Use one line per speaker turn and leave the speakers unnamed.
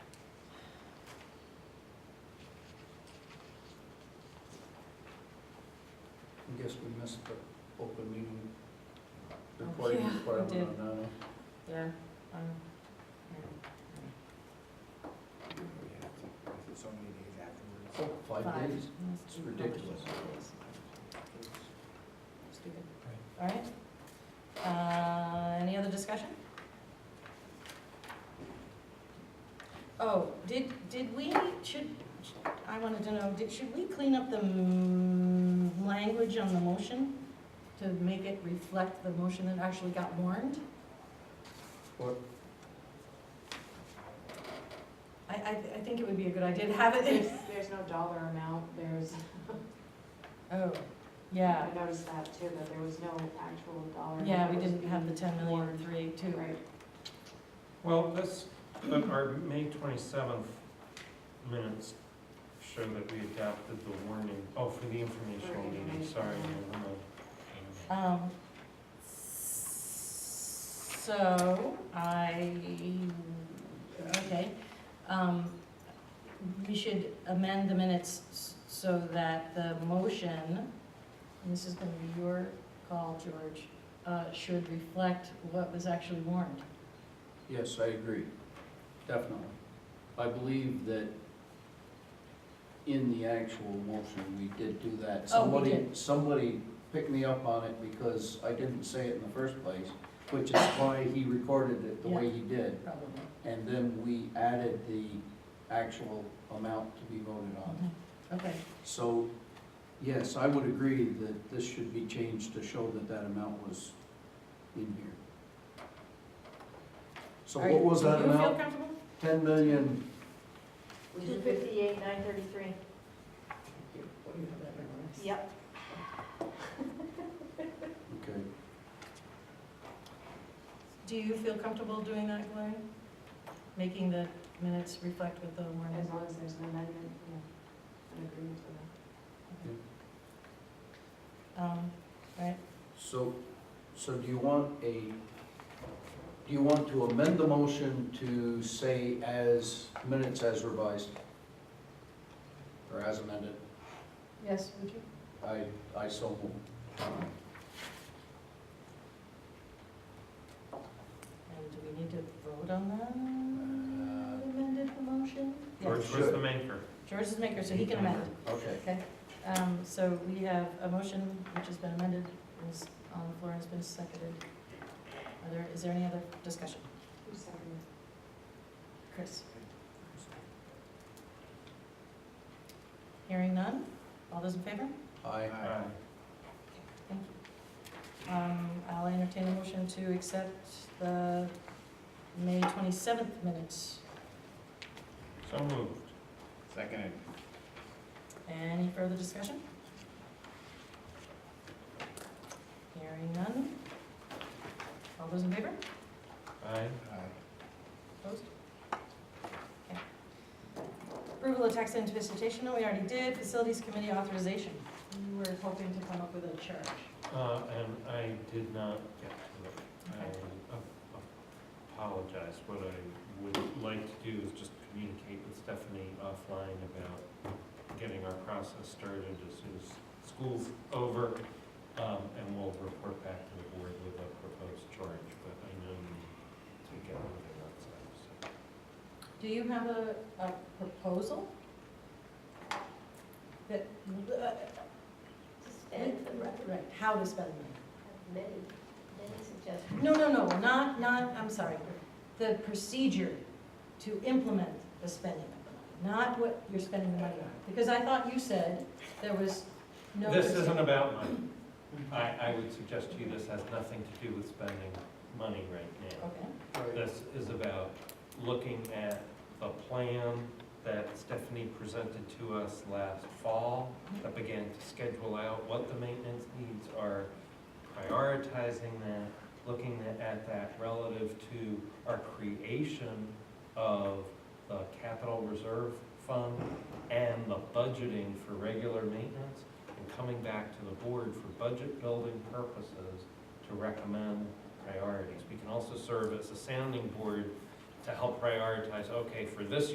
guess we missed the open meeting
Oh, Yeah,
reporting
we
requirement
did.
on that.
Yeah.
So many days afterwards.
Oh, Five days? It's ridiculous.
Stupid. All right. Uh, Any other discussion? Oh, did, did we, should, I wanted to know, did, should we clean up the mm, language on the motion to make it reflect the motion that actually got warned?
What?
I, I, I think it would be a good idea to have it
There's, there's no dollar amount, there's,
Oh, yeah,
I noticed that too, that there was no actual dollar. amount
yeah, we
that was
didn't have the ten million three eight
being-
two.
Right,
Well, this, but our May twenty-seventh minutes show that we adopted the warning, oh, for the informational meeting, sorry. never mind.
Um, so, I, okay, um, we should amend the minutes s- so that the motion, and this is gonna be your call, George, uh, should reflect what was actually warned.
Yes, I agree, definitely. I believe that in the actual motion, we did do that.
Oh, we
Somebody-
did.
Somebody picked me up on it because I didn't say it in the first place, which is why he recorded it the way he did.
Probably.
And then we added the actual amount to be voted on.
Okay,
So, yes, I would agree that this should be changed to show that that amount was in here. So
Are
what
you-
was
do
that
you feel
amount?
comfortable?
Ten million.
two fifty-eight, nine thirty-three, yep.
Okay,
Do you feel comfortable doing that, Gloria? Making the minutes reflect what the
As
warning?
long as there's an amendment, yeah, an agreement to that.
Um, right,
so, so do you want a, do you want to amend the motion to say as, minutes as revised? Or as amended?
yes, would you?
I, I so move.
And do we need to vote on that? Amended the motion?
George
Yes,
Sure.
was the maker.
George is maker, so he can amend.
Okay,
Okay, um, so we have a motion which has been amended, is on the floor, and has been seconded. Are there, is there any other discussion?
Who's second?
Chris? Hearing none? All those in favor?
aye.
Aye.
Thank you. Um, I'll entertain a motion to accept the May twenty-seventh minutes.
So moved.
Seconded.
Any further discussion? Hearing none. All those in favor?
Aye.
Opposed? Okay. Approval of tax anticipation, no, we already did. Facilities Committee authorization. We were hoping to come up with a charge.
Uh, and I did not get to it. I ap- apologize. What I would like to do is just communicate with Stephanie offline about getting our process started as soon as school's over. Um, and we'll report back to the board with a proposed charge, but I know you need to get moving on that,
Do you have a, a proposal? That, uh,
Spend the
right,
money.
right, how to spend the money?
Many, many suggestions.
No, no, no, not, not, I'm sorry, the procedure to implement the spending of the money, not what you're spending the money on. Because I thought you said there was
so.
no.
This isn't about money.
Mm-hmm.
I, I would suggest to you this has nothing to do with spending money right now.
Okay,
Right.
This is about looking at the plan that Stephanie presented to us last fall that began to schedule out what the maintenance needs are, prioritizing that, looking at that relative to our creation of the capital reserve fund and the budgeting for regular maintenance and coming back to the board for budget building purposes to recommend priorities. We can also serve as a sounding board to help prioritize, oh, okay, for this